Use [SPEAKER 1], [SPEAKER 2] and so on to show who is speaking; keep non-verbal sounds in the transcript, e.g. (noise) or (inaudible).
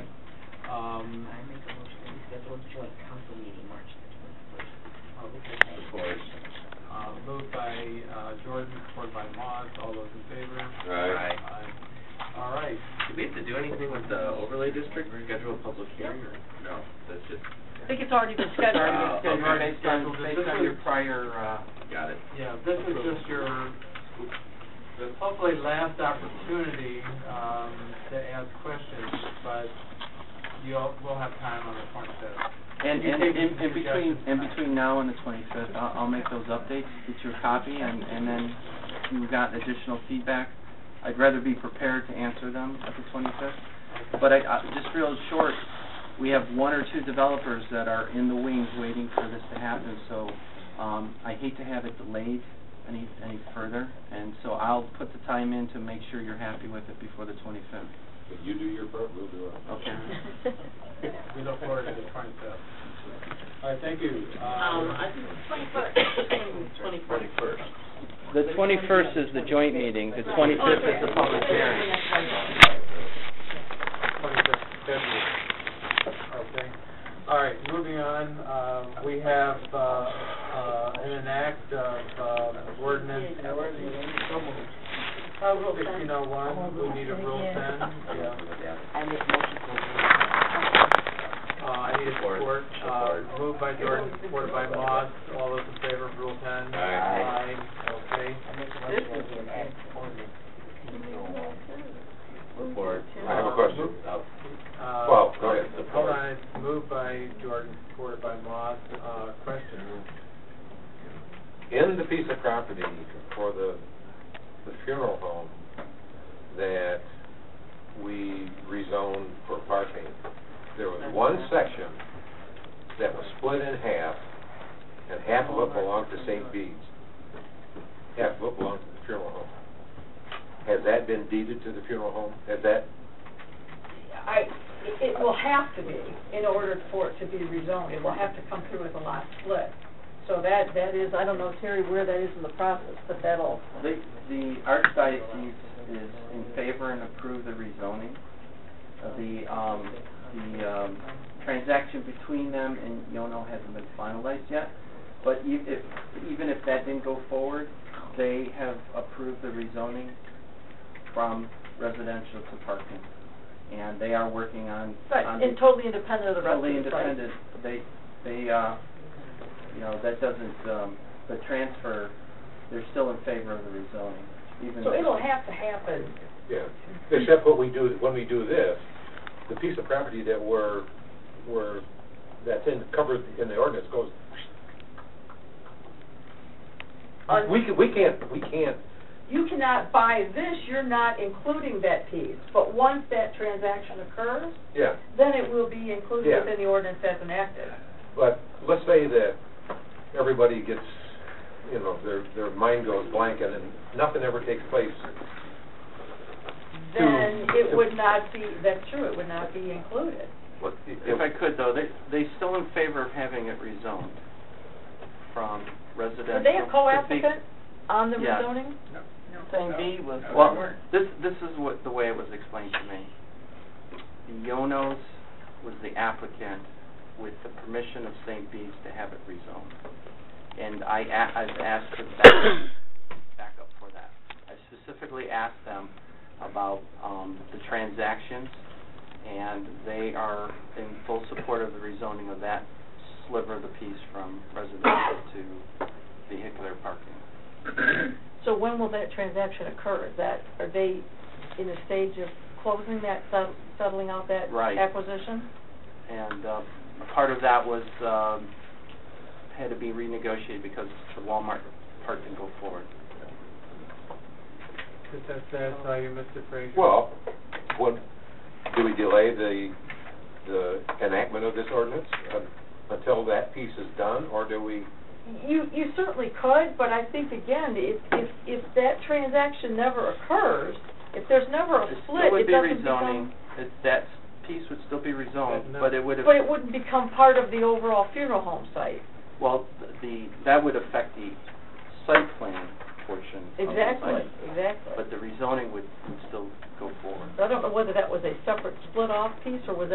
[SPEAKER 1] Um, uh,
[SPEAKER 2] Did we schedule a public hearing or? No, that's just,
[SPEAKER 3] I think it's already been scheduled.
[SPEAKER 2] Uh,
[SPEAKER 1] Already been scheduled
[SPEAKER 2] okay.
[SPEAKER 1] based on, based on your prior, uh,
[SPEAKER 2] got it.
[SPEAKER 1] yeah, this is just your, the hopefully last opportunity, um, to ask questions, but you'll, we'll have time on the twenty-fifth.
[SPEAKER 4] And,
[SPEAKER 1] You
[SPEAKER 4] and,
[SPEAKER 1] take
[SPEAKER 4] and
[SPEAKER 1] the
[SPEAKER 4] and between,
[SPEAKER 1] suggestions.
[SPEAKER 4] and between now and the twenty-fifth, I'll, I'll make those updates, get you a copy, and, and then if you've got additional feedback. I'd rather be prepared to answer them at the twenty-fifth, but I, I, just real short, we have one or two developers that are in the wings waiting for this to happen, so, um, I hate to have it delayed any, any further, and so I'll put the time in to make sure you're happy with it before the twenty-fifth.
[SPEAKER 5] But you do your part, we'll do ours.
[SPEAKER 4] Okay.
[SPEAKER 1] We look forward to the twenty-fifth. All right, thank you. Uh,
[SPEAKER 3] Um, I think twenty-first, twenty-first.
[SPEAKER 2] Twenty-first.
[SPEAKER 4] The twenty-first is the joint meeting, the
[SPEAKER 3] Twenty-fifth
[SPEAKER 4] is the public hearing.
[SPEAKER 1] Okay. All right, moving on, uh, we have, uh, uh, an act of, uh, ordinance. Uh, Rule sixteen oh one, we need a rule ten, yeah.
[SPEAKER 3] I make motion
[SPEAKER 1] Uh, I need a support,
[SPEAKER 2] Support.
[SPEAKER 1] uh, moved by Jordan, supported by Moss, all those in favor of rule ten?
[SPEAKER 2] Aye.
[SPEAKER 1] Aye, okay.
[SPEAKER 3] This is an act
[SPEAKER 2] Report.
[SPEAKER 5] I have a question.
[SPEAKER 2] Uh,
[SPEAKER 1] Uh,
[SPEAKER 5] Well, go ahead.
[SPEAKER 1] Hold on, it's moved by Jordan, supported by Moss, uh, question.
[SPEAKER 5] In the piece of property for the, the funeral home that we rezoned for parking, there was one section that was split in half, and half of it belonged to St. Bede's. Half of it belonged to the funeral home. Has that been deeded to the funeral home? Has that,
[SPEAKER 6] I, it will have to be, in order for it to be rezoned, it will have to come through as a lot split. So that, that is, I don't know, Terry, where that is in the process, but that'll,
[SPEAKER 4] The, the archdiocese is in favor and approve the rezoning. Uh, The, um, the, um, transaction between them and Yono hasn't been finalized yet. But e- if, even if that didn't go forward, they have approved the rezoning from residential to parking. And they are working on,
[SPEAKER 6] but
[SPEAKER 4] on
[SPEAKER 6] in totally independent of the rest of the
[SPEAKER 4] Um, totally
[SPEAKER 6] site.
[SPEAKER 4] independent. They, they, uh, you know, that doesn't, um, the transfer, they're still in favor of the rezoning, even
[SPEAKER 6] So
[SPEAKER 4] they-
[SPEAKER 6] it'll have to happen.
[SPEAKER 5] yeah, except what we do, when we do this, the piece of property that we're, we're, that's in, covered in the ordinance goes
[SPEAKER 6] Un-
[SPEAKER 5] We can, we can't, we can't,
[SPEAKER 6] You cannot buy this, you're not including that piece, but once that transaction occurs,
[SPEAKER 5] yeah,
[SPEAKER 6] then it will be included
[SPEAKER 5] Yeah.
[SPEAKER 6] within the ordinance as enacted.
[SPEAKER 5] but let's say that everybody gets, you know, their, their mind goes blank and then nothing ever takes place.
[SPEAKER 6] Then it would not be, that's true, it would not be included.
[SPEAKER 5] What- it-
[SPEAKER 4] If I could though, they, they still in favor of having it rezoned from residential.
[SPEAKER 6] Would they have
[SPEAKER 4] to be-
[SPEAKER 6] co-applicant on the
[SPEAKER 4] Yeah.
[SPEAKER 6] rezoning?
[SPEAKER 3] Thing B was.
[SPEAKER 4] Well, this, this is what, the way it was explained to me. The Yonos was the applicant with the permission of St. Bede's to have it rezoned. And I, a- I've asked for the backup, backup for that. I specifically asked them about, um, the transactions, and they are in full support of the rezoning of that sliver of the piece from residential to vehicular parking. (coughs)
[SPEAKER 6] So when will that transaction occur? Is that, are they in a stage of closing that, set- settling out that
[SPEAKER 4] Right.
[SPEAKER 6] acquisition?
[SPEAKER 4] And uh, part of that was, um, had to be renegotiated because the Walmart part didn't go forward.
[SPEAKER 1] Does that satisfy you, Mr. Fraser?
[SPEAKER 5] Well, what, do we delay the, the enactment of this ordinance un- until that piece is done, or do we?
[SPEAKER 6] You, you certainly could, but I think again, if, if, if that transaction never occurs, if there's never a
[SPEAKER 4] It still
[SPEAKER 6] split,
[SPEAKER 4] would
[SPEAKER 6] it
[SPEAKER 4] be
[SPEAKER 6] doesn't
[SPEAKER 4] rezoning,
[SPEAKER 6] become,
[SPEAKER 4] It- that piece would still be rezoned, but it would have,
[SPEAKER 6] but it wouldn't become part of the overall funeral home site.
[SPEAKER 4] well, the, that would affect the site plan portion of the
[SPEAKER 6] Exactly,
[SPEAKER 4] site.
[SPEAKER 6] exactly.
[SPEAKER 4] But the rezoning would would still go forward.
[SPEAKER 6] So I don't know whether that was a separate split-off piece or was